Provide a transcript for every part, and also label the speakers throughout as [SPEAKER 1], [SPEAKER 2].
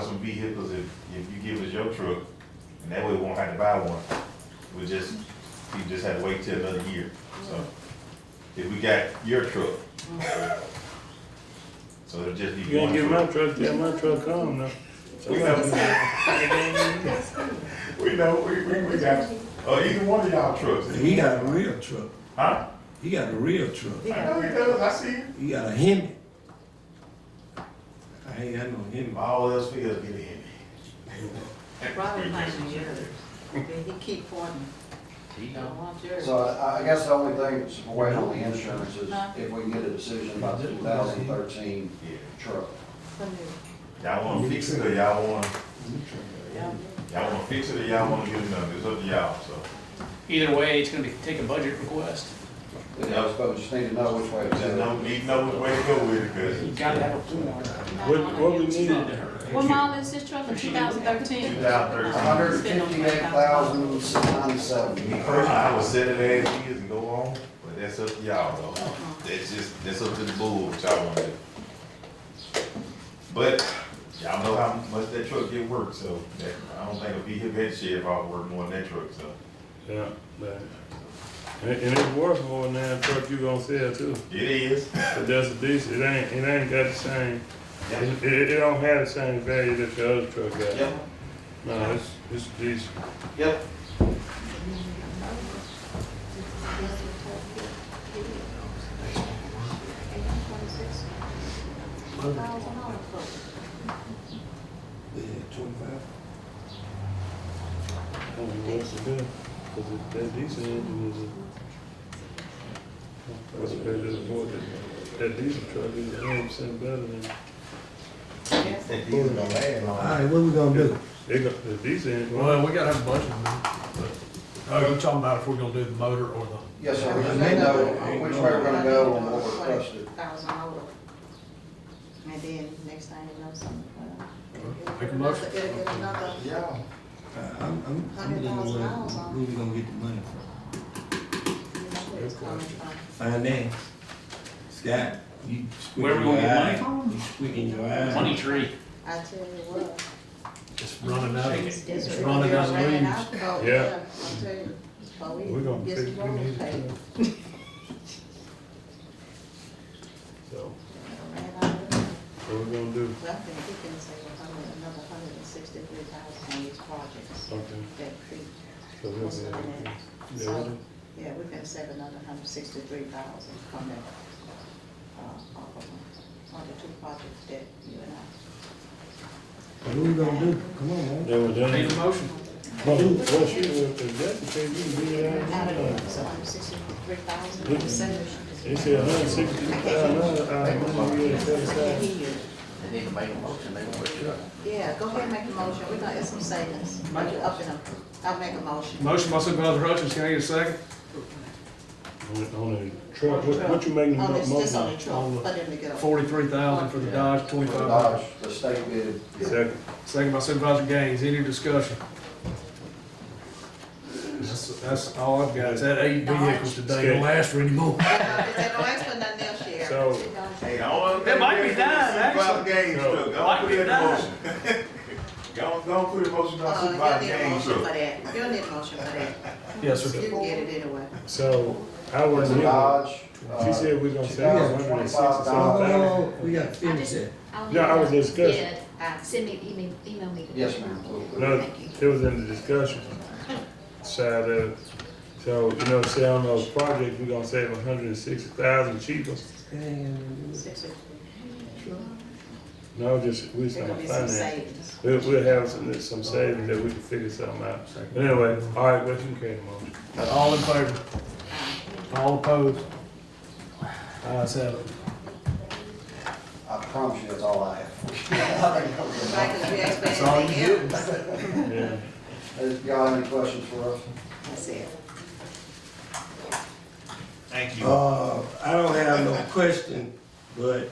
[SPEAKER 1] some vehicles if, if you give us your truck, and that way we won't have to buy one. We just, we just have to wait till another year, so. If we got your truck. So it'll just
[SPEAKER 2] You
[SPEAKER 1] be
[SPEAKER 2] ain't
[SPEAKER 1] one
[SPEAKER 2] get my
[SPEAKER 1] truck.
[SPEAKER 2] truck, till my truck come now.
[SPEAKER 1] We know, we know, we, we, we got, uh, either one of y'all trucks.
[SPEAKER 3] He got a real truck.
[SPEAKER 1] Huh?
[SPEAKER 3] He got a real truck.
[SPEAKER 1] I know he does, I see him.
[SPEAKER 3] He got a Hemi. I ain't got no Hemi.
[SPEAKER 1] All else fails, get in.
[SPEAKER 4] Robert Payne, yours. He keep pointing. Don't want yours.
[SPEAKER 5] So I, I guess the only thing that's weighing on the insurance is if we can get a decision about the two thousand thirteen
[SPEAKER 1] Yeah.
[SPEAKER 5] truck. uh,
[SPEAKER 1] Y'all wanna fix it or y'all wanna, y'all wanna fix it or y'all wanna get another, it's up to y'all, so.
[SPEAKER 6] Either way, it's gonna be, take a budget request.
[SPEAKER 5] But we just need to know which way it's
[SPEAKER 1] Just know,
[SPEAKER 5] going.
[SPEAKER 1] need to know which way to go with it, cause
[SPEAKER 6] You gotta have a form.
[SPEAKER 2] What, what we need,
[SPEAKER 4] What model is this truck in two thousand thirteen?
[SPEAKER 1] 2013.
[SPEAKER 5] Hundred fifty-eight thousand, six ninety-seven.
[SPEAKER 1] me personally, I would set it as is and go on, but that's up to y'all though. That's just, that's up to the board, what y'all wanna do. But y'all know how much that truck get worked, so that, I don't think a vehicle head sheriff ought to work more than that truck, so.
[SPEAKER 2] yeah, but, and, and it's worth more than that truck you gonna sell too.
[SPEAKER 1] It is.
[SPEAKER 2] But that's a decent, it ain't, it ain't got the same,
[SPEAKER 1] Yep.
[SPEAKER 2] it, it it don't have the same value that the other truck got.
[SPEAKER 1] Yep,
[SPEAKER 2] No, it's, it's decent.
[SPEAKER 1] yep.
[SPEAKER 3] Yeah, twenty-five.
[SPEAKER 2] I don't know what's it good, cause it, that diesel engine is a. What's better than what that, that diesel truck is a hundred percent better than,
[SPEAKER 1] These are gonna land
[SPEAKER 3] All
[SPEAKER 1] on.
[SPEAKER 3] right, what we gonna do?
[SPEAKER 2] they got, the diesel engine.
[SPEAKER 7] Well, we gotta have a budget, man. But, Oh, you're talking about if we're gonna do the motor or the,
[SPEAKER 5] Yes, sir, we just need to know which way we're gonna go and what we're trusted.
[SPEAKER 4] Thousand over. And then next time you know something. well,
[SPEAKER 7] Make a motion.
[SPEAKER 4] It'll get another,
[SPEAKER 5] Yeah.
[SPEAKER 3] Uh, I'm, I'm, I'm getting where, where we gonna get the money from?
[SPEAKER 4] you know, where it's coming from.
[SPEAKER 3] Find that. Scott, you
[SPEAKER 6] Where
[SPEAKER 3] squinting
[SPEAKER 6] we
[SPEAKER 3] your
[SPEAKER 6] gonna get
[SPEAKER 3] eye. You squinting your eye.
[SPEAKER 6] Money tree.
[SPEAKER 4] I tell you what.
[SPEAKER 7] just running out,
[SPEAKER 6] Shake it.
[SPEAKER 4] It's
[SPEAKER 7] just running out of
[SPEAKER 4] ran
[SPEAKER 7] leaves.
[SPEAKER 4] out, oh,
[SPEAKER 2] Yeah.
[SPEAKER 4] I tell you, oh,
[SPEAKER 2] We're gonna
[SPEAKER 4] yes,
[SPEAKER 2] fix,
[SPEAKER 4] you
[SPEAKER 2] we
[SPEAKER 4] won't
[SPEAKER 2] need
[SPEAKER 4] pay.
[SPEAKER 2] it So,
[SPEAKER 4] Ran out of leaves.
[SPEAKER 2] what we gonna do?
[SPEAKER 4] So I think we can save a hundred- another hundred and sixty-three thousand on these projects
[SPEAKER 2] Okay,
[SPEAKER 4] that creep.
[SPEAKER 2] so
[SPEAKER 4] What's
[SPEAKER 2] we'll
[SPEAKER 4] the
[SPEAKER 2] be able
[SPEAKER 4] name?
[SPEAKER 2] to-
[SPEAKER 4] So,
[SPEAKER 2] yeah,
[SPEAKER 4] Yeah, we can save another hundred sixty-three thousand from that, uh, off of, on the two projects that you and I.
[SPEAKER 3] What we gonna do? Come on, man.
[SPEAKER 2] They were
[SPEAKER 6] Need a
[SPEAKER 2] done.
[SPEAKER 6] motion.
[SPEAKER 2] Well, once you were presented, you can get it out
[SPEAKER 4] Out
[SPEAKER 2] of your
[SPEAKER 4] of,
[SPEAKER 2] mind.
[SPEAKER 4] so hundred sixty-three thousand, we save.
[SPEAKER 2] They said a hundred sixty thousand, I want to get it set
[SPEAKER 4] I can't
[SPEAKER 2] aside.
[SPEAKER 4] hear you.
[SPEAKER 5] They need to make a motion, they want to.
[SPEAKER 4] Yeah, go ahead and make a motion, we're gonna, it's some savings, make it up in a, I'll make a motion.
[SPEAKER 7] Motion by Supervisor Hutchins, can I get a second?
[SPEAKER 2] On- On the truck, what, what you making the
[SPEAKER 4] On Oh, this, this on
[SPEAKER 2] motion?
[SPEAKER 4] the truck, for them to get a,
[SPEAKER 7] Forty-three thousand for the Dodge,
[SPEAKER 5] For
[SPEAKER 7] twenty-five.
[SPEAKER 5] Dodge, the state bid.
[SPEAKER 2] Second.
[SPEAKER 7] Second by Supervisor Gaines, any discussion? That's, that's all I've got, is that eight vehicles today, don't last for anymore.
[SPEAKER 4] they don't ask for nothing else, Sheriff.
[SPEAKER 2] So-
[SPEAKER 4] She don't-
[SPEAKER 1] Hey, I want.
[SPEAKER 6] That might be done,
[SPEAKER 1] Supervisor Gaines truck, go on,
[SPEAKER 6] Might
[SPEAKER 1] put
[SPEAKER 6] be
[SPEAKER 1] it in the
[SPEAKER 6] done.
[SPEAKER 1] motion. Go on, go on, put a motion on
[SPEAKER 4] Uh, you'll
[SPEAKER 1] Supervisor
[SPEAKER 4] need a
[SPEAKER 1] Gaines
[SPEAKER 4] motion for
[SPEAKER 1] truck.
[SPEAKER 4] that, you'll need a motion for that,
[SPEAKER 7] Yes,
[SPEAKER 4] you
[SPEAKER 7] sir.
[SPEAKER 4] can get it anyway.
[SPEAKER 2] So, I was,
[SPEAKER 5] The Dodge. uh,
[SPEAKER 2] she said we're gonna sell a hundred and sixty
[SPEAKER 5] $2,025.
[SPEAKER 2] something.
[SPEAKER 3] Oh, we gotta finish that.
[SPEAKER 2] Yeah, I was discussing.
[SPEAKER 4] I-
[SPEAKER 8] uh, Send me, email, email me. the-
[SPEAKER 5] Yes, ma'am. we'll- we'll-
[SPEAKER 2] No, it was in the discussion side of, it. so, you know, say on those projects, we are gonna save a hundred and sixty thousand cheaper.
[SPEAKER 3] Damn.
[SPEAKER 4] Six of-
[SPEAKER 2] No, just, we just
[SPEAKER 4] There
[SPEAKER 2] gonna
[SPEAKER 4] gonna be
[SPEAKER 2] finance.
[SPEAKER 4] some savings.
[SPEAKER 2] We'll, we'll have some, some savings that we can figure something out. But anyway, all right, well, you carry the motion.
[SPEAKER 7] All in favor? All opposed? Ayes have it.
[SPEAKER 5] I promise you, that's all I have.
[SPEAKER 4] Right, 'cause we asked for
[SPEAKER 7] That's all you
[SPEAKER 4] anything
[SPEAKER 7] get.
[SPEAKER 4] else.
[SPEAKER 2] Yeah.
[SPEAKER 5] Has- Y'all have any questions for us?
[SPEAKER 4] That's it.
[SPEAKER 1] Thank you.
[SPEAKER 3] Uh, I don't have no question, but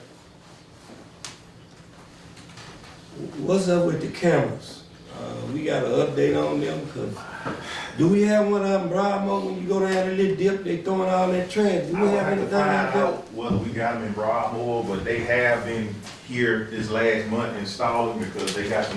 [SPEAKER 3] what's up with the cameras? Uh, we got an update on them, cause do we have one out in Broadmoor when you go down the little dip, they throwing all that trash? Do
[SPEAKER 1] I
[SPEAKER 3] we
[SPEAKER 1] would
[SPEAKER 3] have
[SPEAKER 1] have to
[SPEAKER 3] anything
[SPEAKER 1] find
[SPEAKER 3] out there?
[SPEAKER 1] out whether we got them in Broadmoor, but they have been here this last month installing because they got some